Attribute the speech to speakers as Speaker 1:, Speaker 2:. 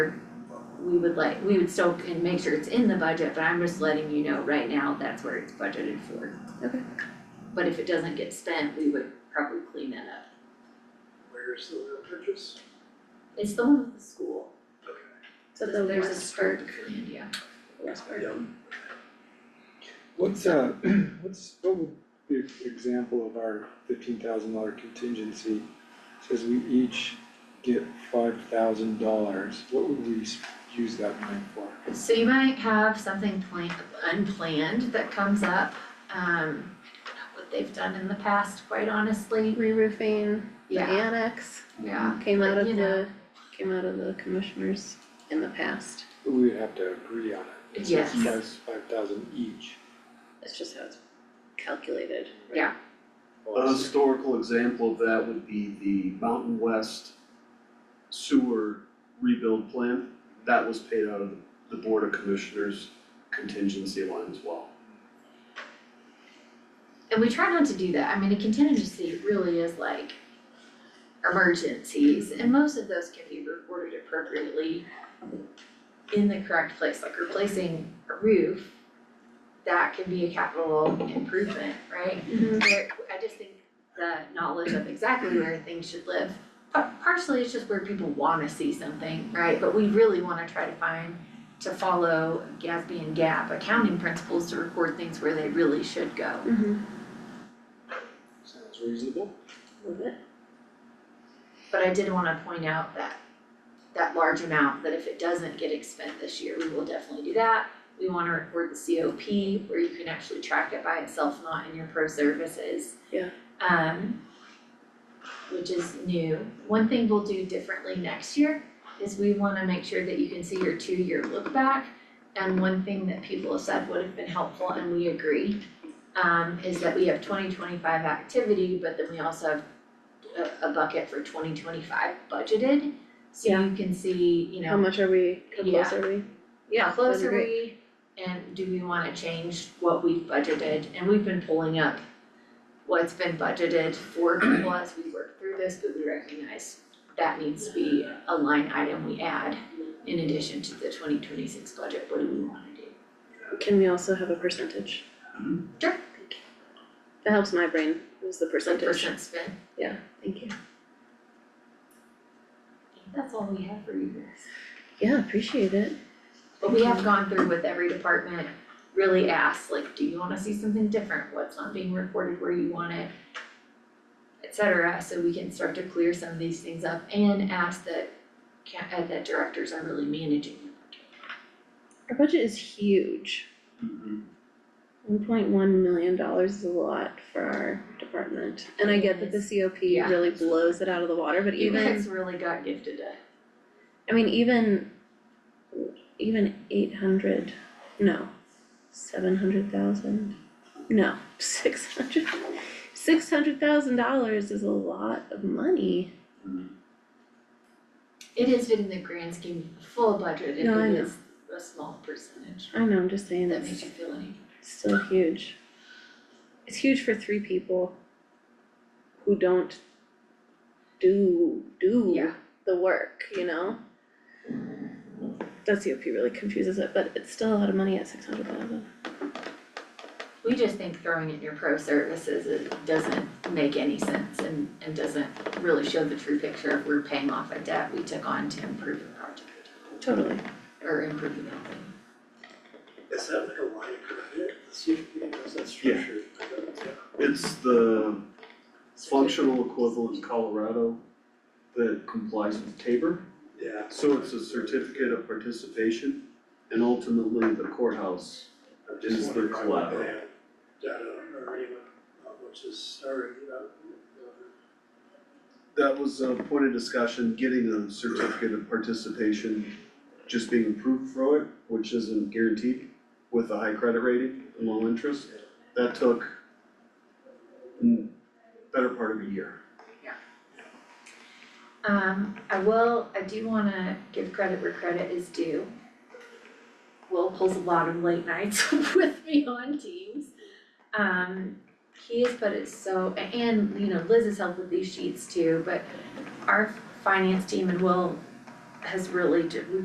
Speaker 1: we would like, we would still can make sure it's in the budget, but I'm just letting you know right now, that's where it's budgeted for.
Speaker 2: Okay.
Speaker 1: But if it doesn't get spent, we would probably clean that up.
Speaker 3: Where's the real purchase?
Speaker 1: It's the one with the school,
Speaker 2: So the
Speaker 1: there's a
Speaker 2: West
Speaker 1: skirt
Speaker 2: Park,
Speaker 1: and yeah.
Speaker 2: West Park.
Speaker 4: What's uh, what's, what would be an example of our fifteen thousand dollar contingency? Says we each get five thousand dollars, what would we s- use that money for?
Speaker 1: So you might have something plan- unplanned that comes up, um, I don't know what they've done in the past, quite honestly,
Speaker 2: Reroofing, the
Speaker 1: yeah,
Speaker 2: annex
Speaker 1: yeah.
Speaker 2: came out
Speaker 1: But,
Speaker 2: of
Speaker 1: you
Speaker 2: the, came out of the commissioners in the past.
Speaker 4: We would have to agree on it. It says
Speaker 1: Yes.
Speaker 4: Five, five thousand each.
Speaker 2: That's just how it's calculated.
Speaker 1: Yeah.
Speaker 3: A historical example of that would be the Mountain West sewer rebuild plan. That was paid out of the Board of Commissioners contingency line as well.
Speaker 1: And we try not to do that, I mean, a contingency really is like emergencies, and most of those can be reported appropriately in the correct place, like replacing a roof, that can be a capital improvement, right?
Speaker 2: Mm-hmm.
Speaker 1: where, I just think the knowledge of exactly where things should live, but partially it's just where people wanna see something, right? But we really wanna try to find, to follow GASB and GAAP accounting principles to record things where they really should go.
Speaker 2: Mm-hmm.
Speaker 4: Sounds reasonable.
Speaker 2: Love it.
Speaker 1: But I did wanna point out that, that large amount, that if it doesn't get expended this year, we will definitely do that. We wanna record the COP where you can actually track it by itself, not in your pro services.
Speaker 2: Yeah.
Speaker 1: Um, which is new. One thing we'll do differently next year is we wanna make sure that you can see your two-year look back. And one thing that people have said would have been helpful, and we agree, um, is that we have twenty twenty-five activity, but then we also have a, a bucket for twenty twenty-five budgeted. So you can see, you know.
Speaker 2: How much are we, how close
Speaker 1: Yeah.
Speaker 2: are we?
Speaker 1: Yeah,
Speaker 2: Those
Speaker 1: close
Speaker 2: are
Speaker 1: are we, and do we wanna change what we've budgeted, and we've been pulling up what's been budgeted for people as we work through this, but we recognize that needs to be a line item we add in addition to the twenty twenty-six budget, what do we wanna do?
Speaker 2: Can we also have a percentage?
Speaker 1: Sure.
Speaker 2: That helps my brain, is the percentage.
Speaker 1: Percent spent,
Speaker 2: Thank you.
Speaker 1: that's all we have for you guys.
Speaker 2: Yeah, appreciate it.
Speaker 1: But we have gone through with every department, really asked, like, do you wanna see something different, what's not being reported where you want it? Et cetera, so we can start to clear some of these things up and ask that ca- uh, that directors are really managing.
Speaker 2: Our budget is huge.
Speaker 3: Mhm.
Speaker 2: One point one million dollars is a lot for our department. And I get that the COP
Speaker 1: Yeah.
Speaker 2: really blows it out of the water, but
Speaker 1: You
Speaker 2: even.
Speaker 1: guys really got gifted a
Speaker 2: I mean, even, even eight hundred, no, seven hundred thousand, no, six hundred, six hundred thousand dollars is a lot of money.
Speaker 1: It is in the grand scheme, of full budget, it
Speaker 2: No, I know.
Speaker 1: is a small percentage,
Speaker 2: I know, I'm just saying
Speaker 1: if that makes
Speaker 2: that's
Speaker 1: you feel any.
Speaker 2: still huge. It's huge for three people who don't do, do
Speaker 1: Yeah.
Speaker 2: the work, you know? That COP really confuses it, but it's still a lot of money at six hundred thousand.
Speaker 1: We just think throwing in your pro services is, doesn't make any sense and, and doesn't really show the true picture of we're paying off a debt we took on to improve a project
Speaker 2: Totally.
Speaker 1: or improve the building.
Speaker 5: Is that like a line of credit, the CFP, is that structured?
Speaker 3: It's the functional equivalent in Colorado that complies with Tabor.
Speaker 5: Yeah.
Speaker 3: So it's a certificate of participation and ultimately the courthouse.
Speaker 5: I'm just
Speaker 3: is the
Speaker 5: wondering why we
Speaker 3: collateral.
Speaker 5: have Data or anyone, uh, which is already, uh,
Speaker 3: That was a point of discussion, getting a certificate of participation, just being approved for it, which isn't guaranteed with a high credit rating and low interest. That took mm, better part of a year.
Speaker 1: Um, I will, I do wanna give credit where credit is due. Will pulls a lot of late nights with me on Teams. Um, he has put it so, and you know, Liz has helped with these sheets too, but our finance team and Will has really, ju- we